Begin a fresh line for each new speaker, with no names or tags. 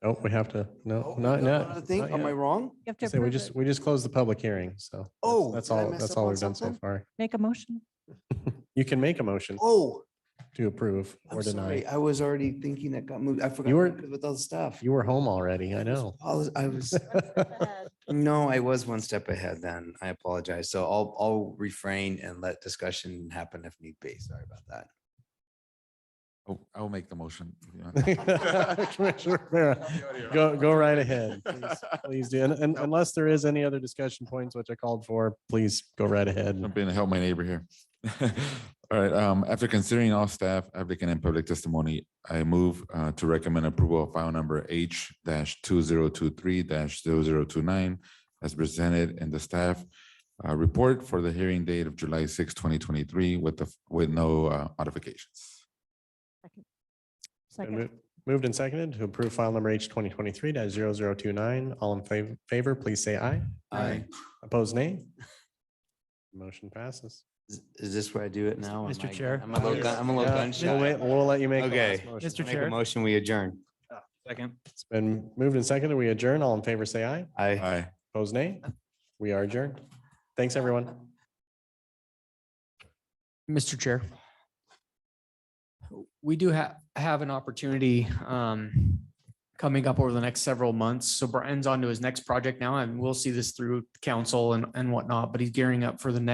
Oh, we have to, no,
Oh,
not,
no,
not.
I think,
not
am I
yet.
wrong?
You have to
Say we
approve
just,
it.
we just closed the public hearing, so. that's-
Oh,
That's
did I
all,
mess
that's
up
all
on
we've done so
something?
far.
Make a motion.
You can make a motion
Oh,
to approve or
I'm
deny.
sorry. I was already thinking that got moved. I forgot.
You were-
because With all the stuff.
You were home already, I know.
I was- I was, no, I was one step ahead then. I apologize. So I'll, I'll refrain and let discussion happen if need be. Sorry about that.
Oh, I'll make the motion. if you want.
Commissioner Rivera, Go, go right ahead. please. Please do. And- And unless there is any other discussion points, which I called for, please go right ahead.
Jump in and help my neighbor here. All right, um, after considering all staff, applicant and public testimony, I move uh to recommend approval of file number H two zero two three 29 as presented in the staff uh report for the hearing date of July 6, 2023, with the, with no uh, modifications.
Been
Second.
mo- Moved and seconded to approve file number H twenty twenty-three 29 All in fav- favor, please say aye.
I,
Opposed, nay? Motion passes.
is- is this where I do it now? Am
Mr.
I-
Chair.
I'm a little, gun- I'm a little
Yeah,
gun
We'll
shy.
wait- we'll let you make. the
Okay.
last motion.
Mr.
Make a
Chair.
motion, we adjourn.
Second.
It's been moved and seconded. We adjourn. All in favor, say aye.
I.
Aye.
Opposed, nay? We are adjourned. Thanks, everyone.
Mr. Chair. We do have, have an opportunity um, coming up over the next several months. So Brian's on to his next project now and we'll see this through council and, and whatnot, but he's gearing up for the next